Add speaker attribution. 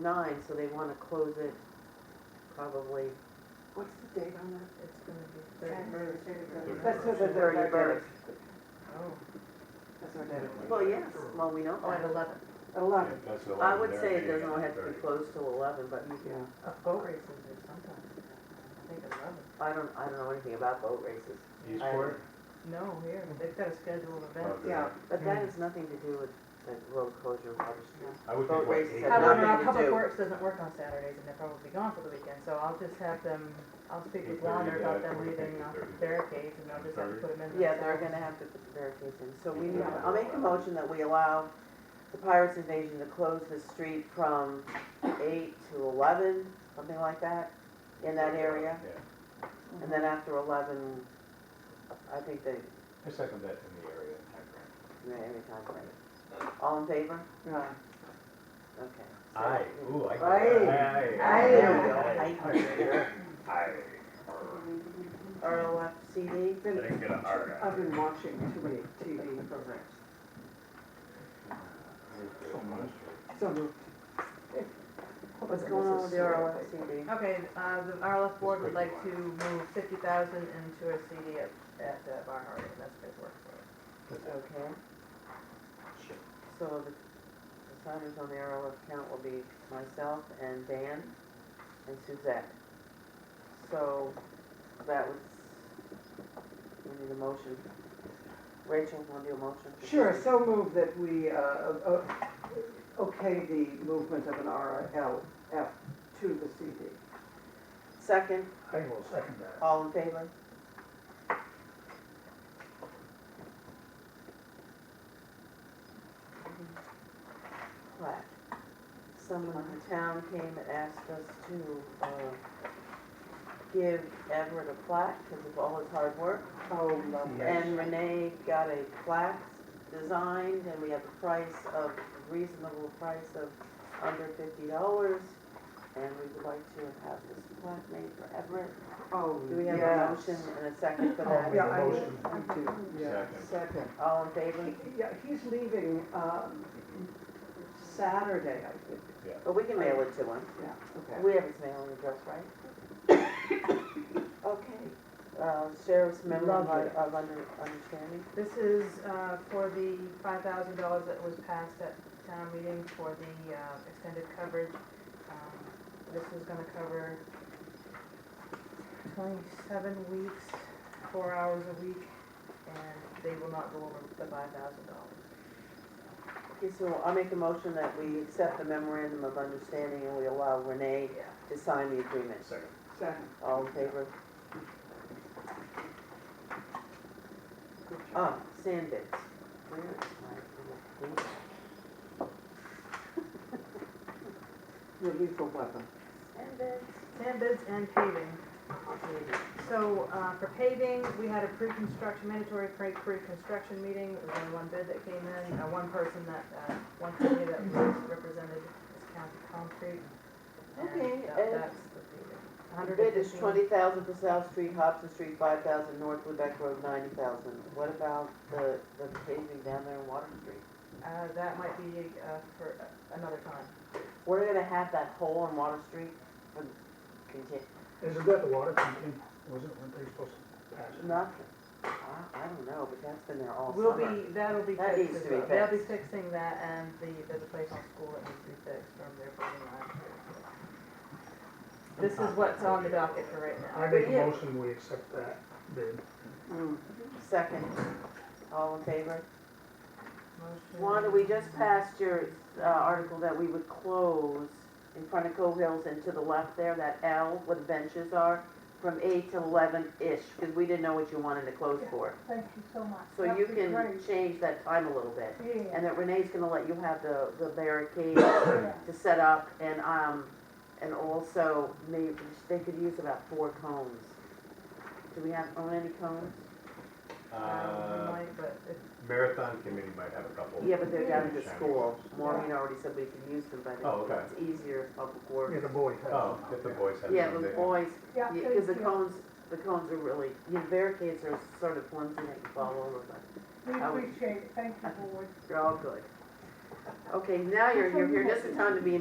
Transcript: Speaker 1: nine, so they wanna close it probably
Speaker 2: What's the date on that?
Speaker 3: It's gonna be
Speaker 2: Thirty-first.
Speaker 3: thirty.
Speaker 2: That's what the
Speaker 1: thirty
Speaker 2: thirty-first.
Speaker 1: first.
Speaker 3: Oh,
Speaker 2: That's our date.
Speaker 1: Well, yes, well, we know
Speaker 3: oh, at
Speaker 1: that.
Speaker 3: eleven,
Speaker 2: At eleven.
Speaker 4: That's the
Speaker 1: I
Speaker 4: one
Speaker 1: would
Speaker 4: there,
Speaker 1: say it
Speaker 4: yeah,
Speaker 1: doesn't have to be
Speaker 4: thirty.
Speaker 1: closed till eleven, but you can,
Speaker 2: Yeah.
Speaker 3: Uh, boat races are sometimes, I think eleven.
Speaker 1: I don't, I don't know anything about boat races.
Speaker 4: Eastport? Oh,
Speaker 3: No, here, they've got a scheduled event.
Speaker 4: Okay.
Speaker 2: Yeah.
Speaker 1: But that has nothing to do with the road closure, Water Street.
Speaker 4: I would
Speaker 1: Boat
Speaker 4: think, what,
Speaker 1: races
Speaker 4: eight
Speaker 1: have Have
Speaker 3: However,
Speaker 1: nothing to
Speaker 3: now
Speaker 4: o'clock?
Speaker 3: Public
Speaker 1: do.
Speaker 3: Works doesn't work on Saturdays and they're probably gone for the weekend, so I'll just have them, I'll speak with
Speaker 4: 8:30
Speaker 3: Lawner about
Speaker 4: to
Speaker 3: them
Speaker 4: 8:30.
Speaker 3: leaving off the barricades and I'll just have to
Speaker 4: 8:30.
Speaker 3: put them in. for
Speaker 1: Yeah, they're
Speaker 3: Saturday.
Speaker 1: gonna have to put the barricades in, so we need, I'll make a motion that we allow the Pirates Invasion to close the street from eight to eleven, something like that, in that area.
Speaker 4: Yeah.
Speaker 1: And then after eleven, I think they,
Speaker 4: I second that in the area. timeframe.
Speaker 1: they every time, right? All in favor?
Speaker 2: Yeah.
Speaker 1: Okay. So-
Speaker 4: Aye, ooh, I.
Speaker 2: Aye.
Speaker 1: There we
Speaker 4: Aye.
Speaker 1: go. Aye.
Speaker 4: Aye.
Speaker 1: RLFCD?
Speaker 4: I didn't get a hard
Speaker 2: I've been watching too many TV programs.
Speaker 4: So much.
Speaker 2: So moved.
Speaker 1: What's going on with the RLFCD?
Speaker 3: Okay, uh, the RLF board would like
Speaker 4: Just
Speaker 3: to
Speaker 4: wait
Speaker 3: move fifty thousand into a CD at, at uh, Barnhart, and that's good work for us.
Speaker 1: Okay. So the the signers on the RLF count will be myself and Dan and Suzette. So that was, we need a motion. Rachel, want to do a motion?
Speaker 2: Sure, so moved that we, uh, uh, okay, the movement of an RLF to the CD.
Speaker 1: Second,
Speaker 5: I will second that.
Speaker 1: all in favor? Plaque. Someone in town came and asked us to, uh, give Everett a plaque because of all his hard work. Um,
Speaker 2: Oh, lovely.
Speaker 1: And Renee got a plaque designed, and we have a price of, reasonable price of under fifty dollars. And we would like to have this plaque made for Everett.
Speaker 2: Oh,
Speaker 1: Do we have a
Speaker 2: yes.
Speaker 1: motion and a second for
Speaker 5: I'll make
Speaker 2: Yeah,
Speaker 5: a
Speaker 1: that?
Speaker 2: I
Speaker 5: motion.
Speaker 2: I do, yeah.
Speaker 4: Second.
Speaker 2: Second.
Speaker 1: All in favor?
Speaker 2: Yeah, he's leaving, um, Saturday, I think.
Speaker 1: But we can mail it to him.
Speaker 2: Yeah, okay.
Speaker 1: We have his mailing address, right? Okay, uh, sheriff's memo of
Speaker 2: Lovely.
Speaker 1: of under, understanding.
Speaker 3: This is, uh, for the five thousand dollars that was passed at town meeting for the, uh, extended coverage. Um, This is gonna cover twenty-seven weeks, four hours a week, and they will not go over the five thousand dollars.
Speaker 1: Okay, so I'll make a motion that we accept the memorandum of understanding and we allow Renee
Speaker 3: Yeah.
Speaker 1: to sign the agreement.
Speaker 4: Second.
Speaker 2: Second.
Speaker 1: All in favor?
Speaker 2: Good job.
Speaker 1: Oh, sand bids. Where is my little thing?
Speaker 2: Your lethal weapon.
Speaker 1: Sand bids.
Speaker 3: Sand bids and paving.
Speaker 1: Maybe.
Speaker 3: So, uh, for paving, we had a pre-construction, mandatory pre- pre-construction meeting, there was only one bid that came in, uh, one person that, uh, one company that was represented as County Concrete. and
Speaker 1: Okay,
Speaker 3: that-
Speaker 1: and-
Speaker 3: That's the paving.
Speaker 1: Your bid is twenty thousand for South Street, Hobson Street, five thousand, North Lubec Road, ninety thousand. What about the, the paving down there in Water Street?
Speaker 3: Uh, that might be, uh, for uh, another time.
Speaker 1: We're gonna have that hole in Water Street for, conti-
Speaker 5: Isn't that the water pumping? Wasn't, weren't they supposed to pass it?
Speaker 1: nothing. I, I don't know, but that's been there all
Speaker 3: We'll
Speaker 1: summer.
Speaker 3: be, that'll be
Speaker 1: That
Speaker 3: fixed
Speaker 1: needs
Speaker 3: as
Speaker 1: to be
Speaker 3: well. They'll be
Speaker 1: fixed.
Speaker 3: fixing that and the, there's a place on school that needs to be fixed from their building last year. This is what's on the docket for right now.
Speaker 5: I make a
Speaker 1: Yeah.
Speaker 5: motion, we accept that bid.
Speaker 2: Mm.
Speaker 1: Second, all in favor?
Speaker 3: Motion-
Speaker 1: Wanda, we just passed your, uh, article that we would close in front of Cove Hills and to the left there, that L where the benches are, from eight to eleven-ish, because we didn't know what you wanted to close for.
Speaker 6: Thank you so much.
Speaker 1: So
Speaker 6: That'd
Speaker 1: you
Speaker 6: be
Speaker 1: can
Speaker 6: great.
Speaker 1: change that time a little bit.
Speaker 6: Yeah,
Speaker 1: And that Renee's gonna let you have the, the barricade to set up and, um, and also maybe, they could use about four cones. Do we have, own any cones?
Speaker 3: Um, we
Speaker 4: Uh,
Speaker 3: might, but it's
Speaker 4: Marathon committee might have a couple.
Speaker 1: Yeah, but they're down at the
Speaker 4: Shiny
Speaker 1: school.
Speaker 4: ones.
Speaker 1: Maureen already said we can use them, but
Speaker 4: Oh, okay.
Speaker 1: it's easier if public
Speaker 5: Yeah,
Speaker 1: works.
Speaker 5: the boy. has
Speaker 4: Oh,
Speaker 5: it.
Speaker 4: if the boys have.
Speaker 1: Yeah,
Speaker 4: some,
Speaker 1: the
Speaker 4: they-
Speaker 1: boys,
Speaker 6: yeah,
Speaker 1: because the
Speaker 6: thank you.
Speaker 1: cones, the cones are really, the barricades are sort of flimsy, they can fall over, but
Speaker 6: We
Speaker 1: I would-
Speaker 6: appreciate it, thank you, board.
Speaker 1: they're all good. Okay, now you're, you're here just in time to be